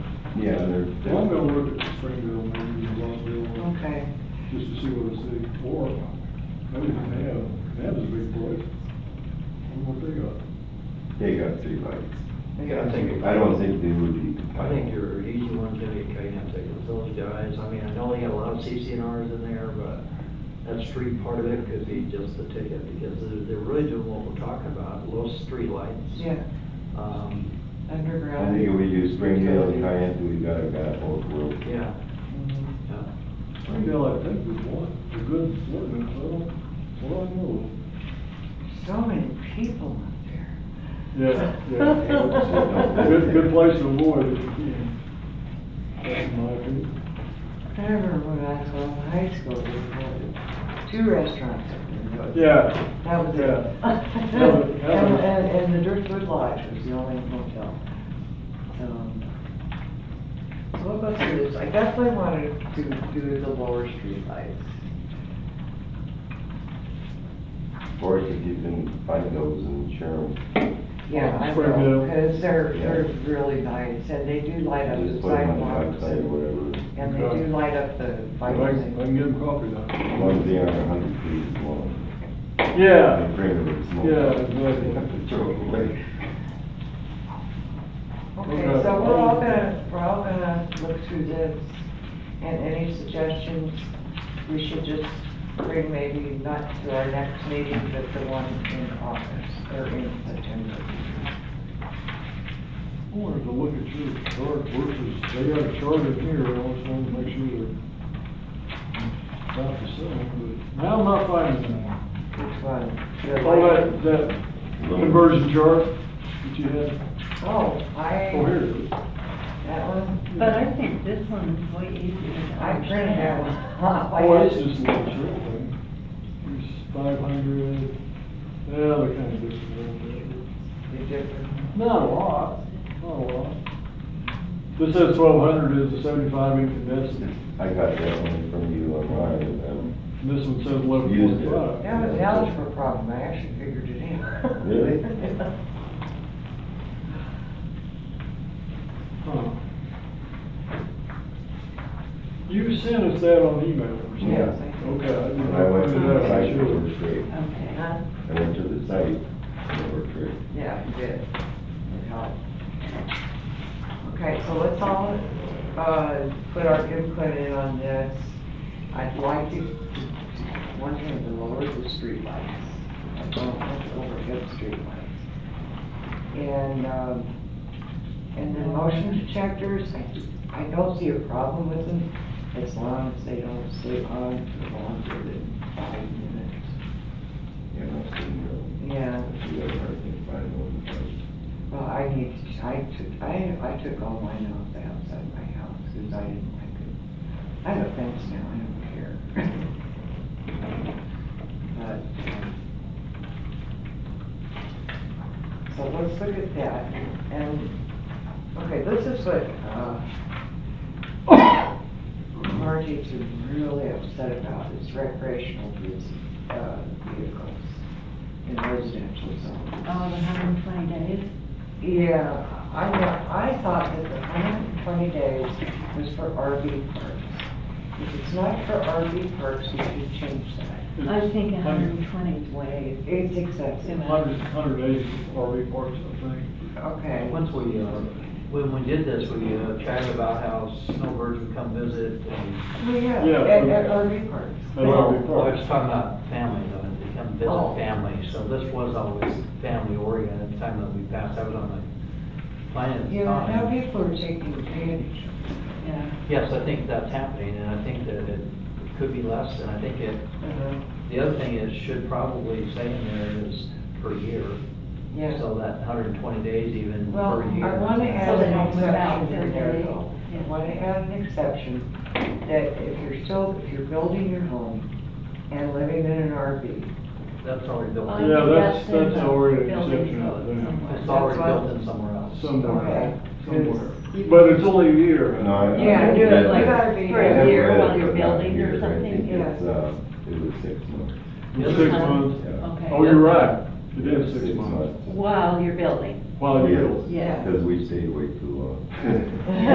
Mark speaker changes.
Speaker 1: Yeah, they're,
Speaker 2: Well, I'm gonna look at Springville, maybe Rockville, or
Speaker 3: Okay,
Speaker 2: just to see what it's like, or maybe Nav, Nav is a big place. I wonder what they got.
Speaker 1: they got three lights.
Speaker 4: Yeah, I think,
Speaker 1: I don't think they would be
Speaker 4: I think
Speaker 1: compliant.
Speaker 4: your easy one's gonna get taken up there with those guys. I mean, I know they got a lot of CCNRs in there, but that street part of it could be just the ticket because they're, they're really doing what we're talking about, low streetlights.
Speaker 3: yeah,
Speaker 4: Um,
Speaker 1: I
Speaker 3: underground.
Speaker 1: think if we do Springdale and Triumph, we got, got both worlds.
Speaker 4: yeah,
Speaker 3: Mhm.
Speaker 4: yeah.
Speaker 2: Springdale, I think, is one, a good one, and so, well, I know.
Speaker 3: So many people out there.
Speaker 2: Yeah, yeah. Good, good place to avoid if you can. That's my opinion.
Speaker 3: I remember when I was in high school, we had two restaurants up there. but
Speaker 2: Yeah,
Speaker 3: That was it.
Speaker 2: Yeah.
Speaker 3: And,
Speaker 2: That was- that was-
Speaker 3: and, and the Driftwood Lodge was the only motel. Um, So what about this, I guess I wanted to do the lower street lights.
Speaker 1: Or if you can find those and share them,
Speaker 3: Yeah, I
Speaker 2: Pretty
Speaker 3: will,
Speaker 2: good.
Speaker 3: because they're, they're really nice, and they do light up the
Speaker 1: just put them on the
Speaker 3: sidewalks,
Speaker 1: website or
Speaker 3: and
Speaker 1: whatever.
Speaker 3: and they do light up the
Speaker 2: I can, I
Speaker 3: bikes.
Speaker 2: can get them coffee now.
Speaker 1: As long as they aren't a hundred feet long.
Speaker 2: Yeah.
Speaker 1: They bring them small.
Speaker 2: Yeah, exactly.
Speaker 1: Throw them away.
Speaker 3: Okay, so we're all gonna, we're all gonna look through this, and any suggestions, we should just bring maybe not to our next meeting, but the one in August, or in September.
Speaker 2: I wanted to look at your chart versus, they got a chart in here, I always wanted to make sure they're about the same, but now I'm not finding them.
Speaker 3: Which one? The
Speaker 2: All
Speaker 3: light-
Speaker 2: that, that conversion chart that you had,
Speaker 3: Oh,
Speaker 2: oh, here
Speaker 3: I,
Speaker 2: it is.
Speaker 3: that one,
Speaker 5: But I think this one is way easier. to
Speaker 3: I printed that one. off. I
Speaker 2: Oh, that's
Speaker 3: just-
Speaker 2: just a little short thing. Here's five hundred, yeah, they're kind of different. a little bit.
Speaker 3: The different-
Speaker 2: Not a lot, not a lot. This says twelve hundred is a seventy-five incandescent,
Speaker 1: I got that one from you online, and,
Speaker 2: and this one says eleven
Speaker 1: Used it.
Speaker 2: forty-five.
Speaker 3: That was an algebra problem, I actually figured it out.
Speaker 1: Really?
Speaker 2: Huh. You sent us that on email or something?
Speaker 1: Yeah.
Speaker 2: Okay, I did
Speaker 1: when I
Speaker 2: not
Speaker 1: went
Speaker 2: put
Speaker 1: to
Speaker 2: it
Speaker 1: the
Speaker 2: out,
Speaker 1: site,
Speaker 2: I'm
Speaker 1: it
Speaker 2: sure.
Speaker 1: worked great.
Speaker 5: Okay.
Speaker 3: Huh?
Speaker 1: I went to the site, and it worked great.
Speaker 3: Yeah, you did. It helped. Okay, so let's all, uh, put our input in on this. I'd like to, one thing, to lower the streetlights. I don't want to overhead streetlights. And, um, and then motion detectors, I, I don't see a problem with them as long as they don't stay on for longer than five minutes.
Speaker 1: Yeah, I've seen
Speaker 3: Yeah.
Speaker 1: them. If you ever can find one,
Speaker 3: Well, I need, to- I took, I, I took all mine off the outside of my house, because I didn't like it. I have a fence now, I don't care. But, um, so let's look at that, and, okay, this is what, uh, Margie's really upset about, is recreational vehicles, uh, vehicles in residential zones.
Speaker 5: Oh, the hundred and twenty days?
Speaker 3: Yeah, I know, I thought that the hundred and twenty days was for RV parks. If it's not for RV parks, we should change that.
Speaker 5: I think a hundred and twenty is way,
Speaker 3: It's excessive.
Speaker 2: Hundred, hundred eighty RV parks, I think.
Speaker 3: Okay.
Speaker 4: Once we, uh, when we did this, we uh, chatted about how snowbirds would come visit and,
Speaker 3: Well, yeah,
Speaker 2: Yeah.
Speaker 3: at, at RV parks.
Speaker 2: At RV
Speaker 4: well, I
Speaker 2: parks.
Speaker 4: was talking about family, though, and they come
Speaker 3: Oh.
Speaker 4: visit family. So this was always family oriented at the time that we passed. I was on the plan at the
Speaker 3: You know, now
Speaker 4: time.
Speaker 3: people are taking advantage.
Speaker 5: yeah.
Speaker 4: Yes, I think that's happening and I think that it could be less and I think it,
Speaker 3: Uh,
Speaker 4: the other thing is should probably say in there is per year.
Speaker 3: Yeah.
Speaker 4: So that hundred and twenty days even
Speaker 3: Well,
Speaker 4: per year.
Speaker 3: I wanna
Speaker 5: So
Speaker 3: add
Speaker 5: they
Speaker 3: an
Speaker 5: don't move out
Speaker 3: exception in
Speaker 5: every
Speaker 3: there
Speaker 5: day.
Speaker 3: though. I
Speaker 5: Yeah.
Speaker 3: wanna add an exception, that if you're still, if you're building your home and living in an RV,
Speaker 4: That's already built.
Speaker 5: I
Speaker 4: in.
Speaker 5: think
Speaker 2: Yeah, that's-
Speaker 5: in
Speaker 2: that's
Speaker 5: the
Speaker 2: already
Speaker 5: building
Speaker 2: exception, I
Speaker 5: code
Speaker 2: think.
Speaker 5: somewhere.
Speaker 4: It's already built in somewhere else.
Speaker 2: Somewhere,
Speaker 3: Okay.
Speaker 2: somewhere. But it's only a year.
Speaker 1: No, I- I-
Speaker 3: Yeah,
Speaker 5: do it like
Speaker 3: gotta be-
Speaker 5: for
Speaker 1: I
Speaker 5: a
Speaker 1: never
Speaker 5: year
Speaker 1: read it,
Speaker 5: while you're
Speaker 1: but not
Speaker 5: building
Speaker 1: here.
Speaker 5: or
Speaker 1: I
Speaker 5: something,
Speaker 1: think It's,
Speaker 3: yeah.
Speaker 1: uh, it was six months.
Speaker 2: Six months.
Speaker 5: Okay.
Speaker 2: Oh, you're right, it is six months.
Speaker 5: While you're building,
Speaker 2: While you're.
Speaker 5: yeah.
Speaker 1: Because we stayed way too long.